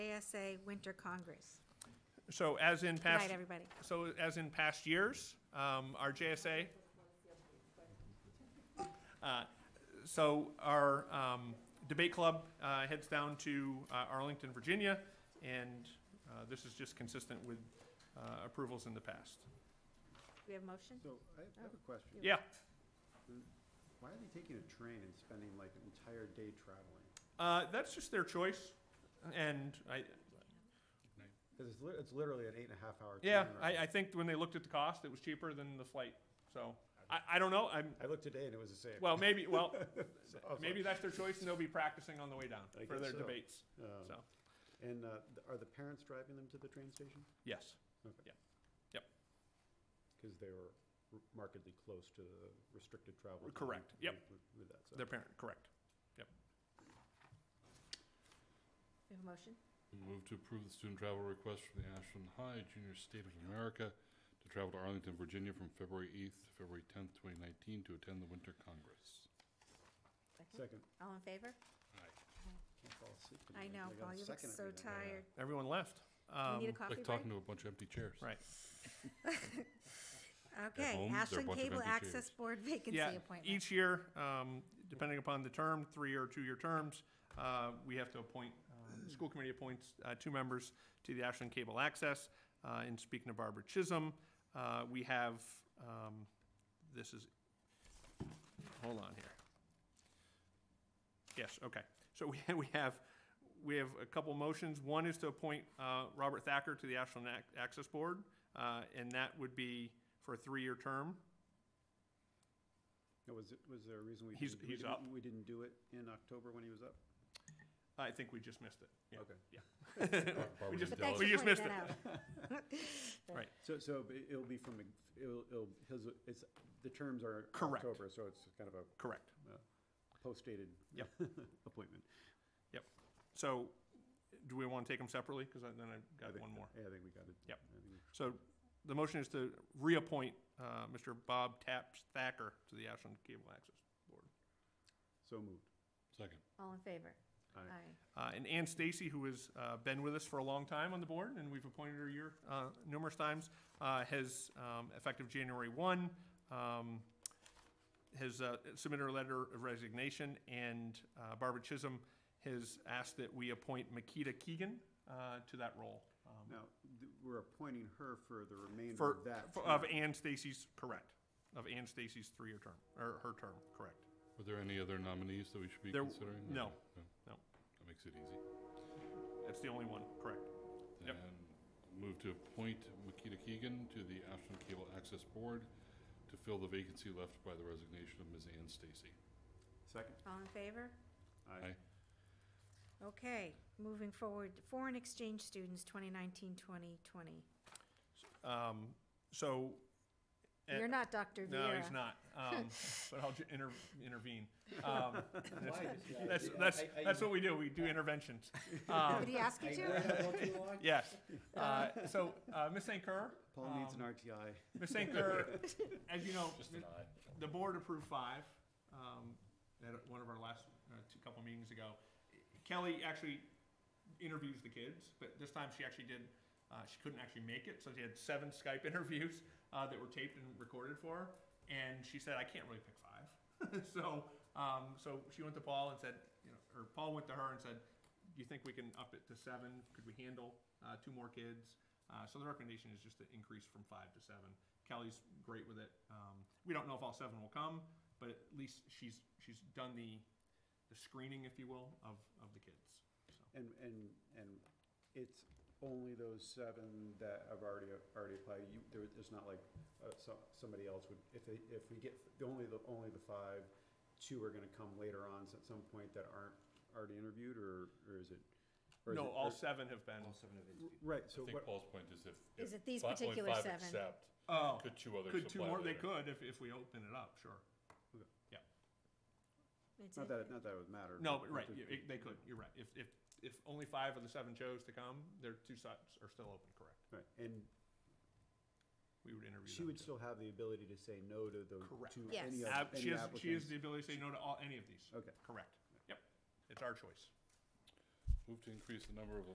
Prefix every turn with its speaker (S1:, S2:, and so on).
S1: MRSA Winter Congress.
S2: So as in
S1: Good
S2: past.
S1: night, everybody.
S2: So as in past years, um, our JSA. Uh, So our um, debate club uh, heads down to uh, Arlington, Virginia, and uh, this is just consistent with uh, approvals in the past.
S1: Do we have a motion?
S3: So I have- I have a question.
S2: Yeah,
S3: Why are they taking a train and spending like an entire day traveling?
S2: uh, that's just their choice, and I,
S3: Because it's, li- it's literally an eight and a half hour.
S2: yeah,
S3: train
S2: I,
S3: ride.
S2: I think when they looked at the cost, it was cheaper than the flight, so, I, I don't know, I'm,
S3: I looked today and it was the same.
S2: well, maybe, well,
S3: So I was like,
S2: maybe that's their choice, and they'll be practicing on the way down
S3: I
S2: for
S3: guess
S2: their
S3: so.
S2: debates,
S3: um,
S2: so,
S3: And uh, th- are the parents driving them to the train station?
S2: yes.
S3: Because they were r- markedly close to the restricted travel. time
S2: Correct. Yep.
S3: with- With that, so.
S2: Their parent, correct.
S1: We have a motion?
S4: Move to approve the student travel request from the Ashland High Junior State of America to travel to Arlington, Virginia from February 8th to February 10th, 2019 to attend the Winter Congress.
S3: Second.
S1: All in favor?
S3: Can't fall asleep
S1: I
S3: tonight.
S1: know, Paul,
S3: got a
S1: you look
S3: second
S1: so
S3: every night.
S1: tired.
S2: Everyone left.
S1: Do we need a
S2: Um,
S1: coffee
S4: Like
S1: break?
S4: talking to a bunch of empty chairs.
S2: Right.
S1: Okay,
S4: home, there are a
S1: Ashland
S4: bunch of
S1: Cable
S4: empty
S1: Access
S4: chairs.
S1: Board vacancy
S2: yeah,
S1: appointment.
S2: each year, um, depending upon the term, three or two-year terms, uh, we have to appoint, uh, the school committee appoints, uh, two members to the Ashland Cable Access. Uh, and speaking of Barbara Chisholm, uh, we have, um, this is, hold on here. Yes, okay. So we, we have, we have a couple motions. One is to appoint, uh, Robert Thacker to the Ashland Ac- Access Board, uh, and that would be for a three-year term.
S3: Now, Was, it- was there a reason we
S2: He's-
S3: didn't, we
S2: he's
S3: didn't-
S2: up.
S3: we didn't do it in October when he was up?
S2: I think we just missed it. Yeah.
S3: Okay.
S4: Bar- Barbara
S2: just-
S1: But
S4: Dell-
S1: thanks
S2: Dallas. We
S1: for pointing
S2: just missed
S1: that out.
S3: So, so but it'll be from, a- it'll, it'll, his, it's, the terms are
S2: Correct.
S3: October, so it's kind of a
S2: Correct.
S3: post-dated
S2: Yep.
S3: appointment.
S2: So do we want to take them separately? Because then I've
S3: I
S2: got
S3: think-
S2: one more.
S3: Yeah, I think we got it.
S2: Yep.
S3: I think we-
S2: So the motion is to reappoint uh, Mr. Bob Taps Thacker to the Ashland Cable Access Board.
S3: So moved.
S4: Second.
S1: All in favor?
S3: Aye.
S2: Uh, And Ann Stacy, who has uh, been with us for a long time on the board, and we've appointed her year uh, numerous times, uh, has, um, effective January 1, um, has uh, submitted her letter of resignation, and uh, Barbara Chisholm has asked that we appoint Makita Keegan uh, to that role. um,
S3: Now, th- we're appointing her for the remainder
S2: For,
S3: of that.
S2: for- of
S3: term.
S2: Ann Stacy's, correct, of Ann Stacy's three-year term, or her term, correct.
S4: Were there any other nominees that we should be
S2: There-
S4: considering?
S2: no,
S4: Okay,
S2: no.
S4: That makes it easy.
S2: That's the only one, correct. Yep.
S4: Then move to appoint Makita Keegan to the Ashland Cable Access Board to fill the vacancy left by the resignation of Ms. Ann Stacy.
S3: Second.
S1: All in favor?
S4: Aye.
S1: Okay, moving forward, foreign exchange students, 2019, 2020.
S2: Um, So. eh,
S1: You're not Dr. Vera.
S2: No, he's not. Um, but I'll ju- inter- intervene. Um, that's, that's, that's what we do. We do interventions.
S1: Did
S2: Um,
S1: he ask you to?
S2: yes. Uh, so, uh, Ms. St. Kerr,
S3: Paul needs an
S2: Um,
S3: RTI.
S2: Ms. St. Kerr, as you know,
S4: Just an aye.
S2: the board approved five, um, at one of our last, uh, two, couple meetings ago. Kelly actually interviews the kids, but this time she actually did, uh, she couldn't actually make it, so she had seven Skype interviews, uh, that were taped and recorded for her. And she said, I can't really pick five. So, um, so she went to Paul and said, you know, or Paul went to her and said, do you think we can up it to seven? Could we handle, uh, two more kids? Uh, so the recommendation is just to increase from five to seven. Kelly's great with it. Um, we don't know if all seven will come, but at least she's she's done the the screening, if you will, of of the kids. So
S3: And, and, and it's only those seven that have already, already applied. You, there, there's not like, uh, some, somebody else would, if they, if we get, the only, the, only the five, two are gonna come later on at some point that aren't already interviewed, or, or is it? or is
S2: no,
S3: it-
S2: all
S3: or-
S2: seven have been.
S3: Right, so
S4: I think
S3: what,
S4: Paul's point is if. if
S1: Is it these
S4: fi- only
S1: particular
S4: five
S1: seven?
S4: accept,
S2: Oh,
S4: Could two others
S2: could two
S4: apply
S2: more? They
S4: later?
S2: could if if we open it up. Sure.
S1: It's
S3: not
S1: a-
S3: that, it- not that it would matter.
S2: No,
S3: but
S2: but right.
S3: if-
S2: you- it- they could. You're right. If if if only five of the seven chose to come, their two sides are still open. Correct.
S3: Right, and
S2: We would interview.
S3: She
S2: them
S3: would
S2: too.
S3: still have the ability to say no to those,
S2: Correct.
S3: to
S1: Yes.
S3: any of, any
S2: Ab-
S3: applicants?
S2: she has she has the ability to say no to all any of these.
S3: Okay.
S2: Correct. Yep. It's our choice.
S4: Move to increase the number of